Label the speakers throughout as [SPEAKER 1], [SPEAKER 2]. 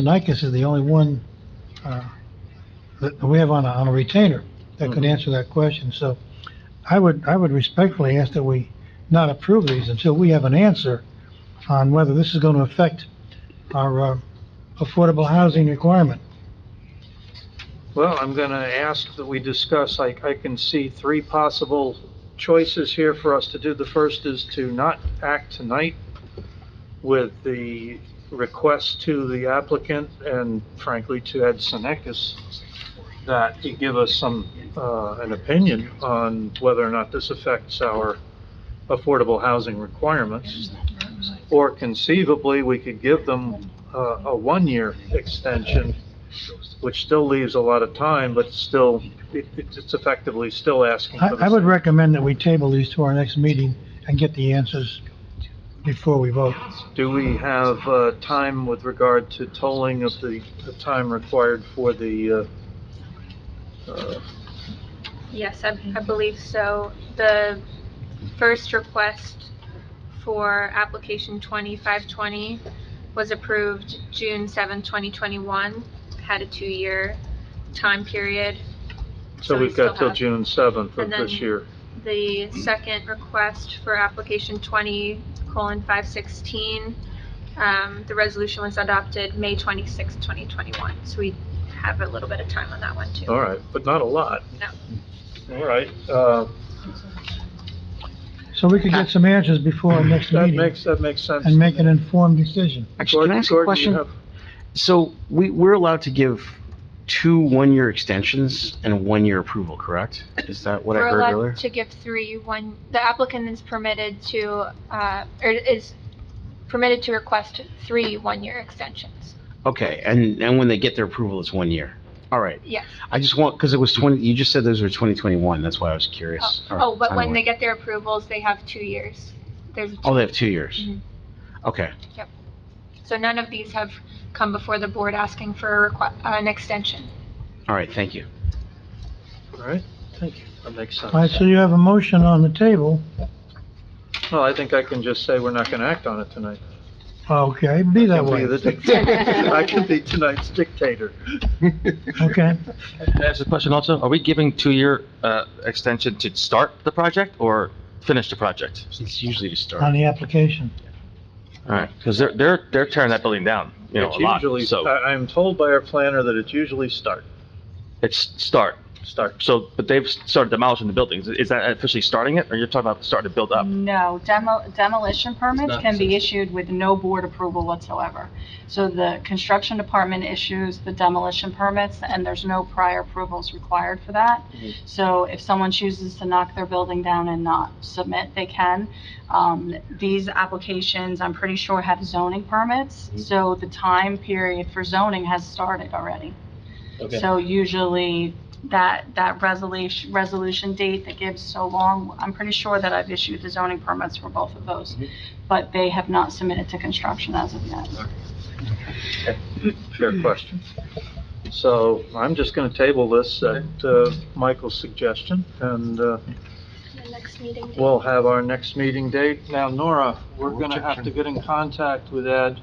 [SPEAKER 1] Sinakis is the only one, uh, that that we have on a, on a retainer that could
[SPEAKER 2] Mhm.
[SPEAKER 1] answer that question, so I would, I would respectfully ask that we not approve these until we have an answer on whether this is going to affect our, uh, affordable housing requirement.
[SPEAKER 2] Well, I'm going to ask that we discuss, I, I can see three possible choices here for us to do. The first is to not act tonight with the request to the applicant and frankly to Ed Senekis that he give us some, uh, an opinion on whether or not this affects our affordable housing requirements. Or conceivably, we could give them, uh, a one-year extension which still leaves a lot of time, but still, it- it's it's effectively still asking
[SPEAKER 1] I,
[SPEAKER 2] for the
[SPEAKER 1] I would
[SPEAKER 2] same.
[SPEAKER 1] recommend that we table these to our next meeting and get the answers before we vote.
[SPEAKER 2] Do we have uh, time with regard to tolling of the the time required for the, uh, uh,
[SPEAKER 3] Yes, I, I believe so. The first request for application 2520 was approved June 7, 2021, had a two-year time period.
[SPEAKER 2] so
[SPEAKER 3] So we
[SPEAKER 2] we've got
[SPEAKER 3] still
[SPEAKER 2] till
[SPEAKER 3] have-
[SPEAKER 2] June 7th of
[SPEAKER 3] And then-
[SPEAKER 2] this year?
[SPEAKER 3] The second request for application 20:516, um, the resolution was adopted May 26, 2021. So we have a little bit of time on that one, too.
[SPEAKER 2] All right, but not a lot.
[SPEAKER 3] No.
[SPEAKER 2] All right, uh,
[SPEAKER 1] So we could get some answers before our next
[SPEAKER 2] that
[SPEAKER 1] meeting
[SPEAKER 2] makes, that makes sense.
[SPEAKER 1] and make an informed decision.
[SPEAKER 4] Actually, can I ask a
[SPEAKER 2] Gordon, you
[SPEAKER 4] question?
[SPEAKER 2] have-
[SPEAKER 4] So we, we're allowed to give two one-year extensions and one-year approval, correct? Is that what I heard
[SPEAKER 3] We're
[SPEAKER 4] earlier?
[SPEAKER 3] allowed to give three, one, the applicant is permitted to, uh, or is permitted to request three one-year extensions.
[SPEAKER 4] Okay, and, and when they get their approval, it's one year. All right.
[SPEAKER 3] Yes.
[SPEAKER 4] I just want, because it was 20, you just said those were 2021, that's why I was curious. All right,
[SPEAKER 3] Oh, but when
[SPEAKER 4] timeline.
[SPEAKER 3] they get their approvals, they have two years. There's,
[SPEAKER 4] Oh, they have two years?
[SPEAKER 3] Mhm.
[SPEAKER 4] Okay,
[SPEAKER 3] so none of these have come before the board asking for a requ- uh, an extension.
[SPEAKER 4] all right, thank you.
[SPEAKER 2] All right, thank you, that makes
[SPEAKER 1] All right,
[SPEAKER 2] sense.
[SPEAKER 1] so you have a motion on the table.
[SPEAKER 2] Well, I think I can just say we're not going to act on it tonight.
[SPEAKER 1] Okay, be that
[SPEAKER 2] I'll be
[SPEAKER 1] way.
[SPEAKER 2] the dictator. I can be tonight's dictator.
[SPEAKER 1] Okay,
[SPEAKER 5] Can I ask a question also? Are we giving two-year uh, extension to start the project or finish the project?
[SPEAKER 4] It's usually
[SPEAKER 1] on
[SPEAKER 4] to start.
[SPEAKER 1] the application.
[SPEAKER 5] All right, because they're, they're, they're tearing that building down, you know,
[SPEAKER 2] It's
[SPEAKER 5] a lot,
[SPEAKER 2] usually-
[SPEAKER 5] so
[SPEAKER 2] I, I'm told by our planner that it's usually start,
[SPEAKER 5] it's start.
[SPEAKER 2] start.
[SPEAKER 5] So, but they've started demolishing the buildings. Is that officially starting it, or you're talking about starting to build up?
[SPEAKER 6] No, demo, demolition permits
[SPEAKER 5] not
[SPEAKER 6] can be issued with no board approval whatsoever. So the construction department issues the demolition permits, and there's no prior approvals required for that.
[SPEAKER 5] Mm-hmm.
[SPEAKER 2] Mhm.
[SPEAKER 6] So if someone chooses to knock their building down and not submit, they can. Um, these applications, I'm pretty sure, have zoning permits,
[SPEAKER 5] Mm-hmm.
[SPEAKER 6] so the time period for zoning has started already. So usually, that, that resolution, resolution date that gives so long, I'm pretty sure that I've issued the zoning permits for both of those, but they have not submitted to construction as of yet.
[SPEAKER 2] Fair question. So I'm just gonna table this at, uh, Michael's suggestion, and, uh,
[SPEAKER 3] The next meeting.
[SPEAKER 2] we'll have our next meeting date. Now, Nora, we're gonna have to get in contact with Ed,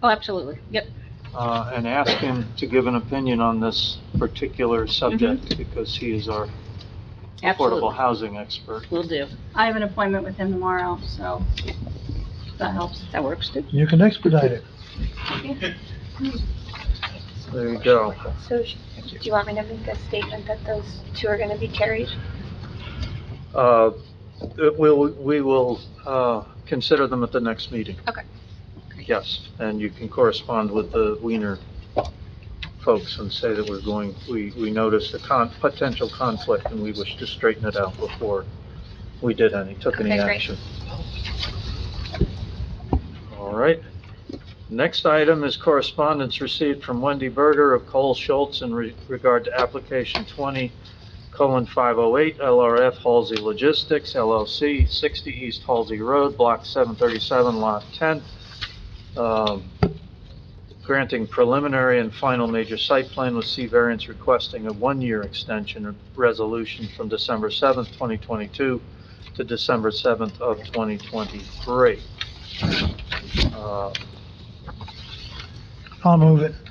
[SPEAKER 7] Oh, absolutely. Yep.
[SPEAKER 2] uh, and ask him to give an opinion on this particular subject, because he is our affordable
[SPEAKER 7] Absolutely.
[SPEAKER 2] housing expert.
[SPEAKER 7] Will do.
[SPEAKER 6] I have an appointment with him tomorrow, so if that helps.
[SPEAKER 7] That works too.
[SPEAKER 1] You can expedite it.
[SPEAKER 2] There you go.
[SPEAKER 3] So sh- do you want me to make a statement that those two are going to be carried?
[SPEAKER 2] Uh, we'll, we will, uh, consider them at the next meeting.
[SPEAKER 3] Okay.
[SPEAKER 2] Yes, and you can correspond with the Wiener folks and say that we're going, we, we noticed a con, potential conflict and we wish to straighten it out before we did any, took any
[SPEAKER 3] Okay, great.
[SPEAKER 2] action. All right. Next item is correspondence received from Wendy Berger of Cole Schultz in re- regard to application twenty colon 508 LRF Halsey Logistics LLC, 60 East Halsey Road, Block 737, Lot 10, um, granting preliminary and final major site plan with C variance requesting a one-year extension of resolution from December 7th, 2022 to December 7th of 2023. Uh,
[SPEAKER 1] I'll move it.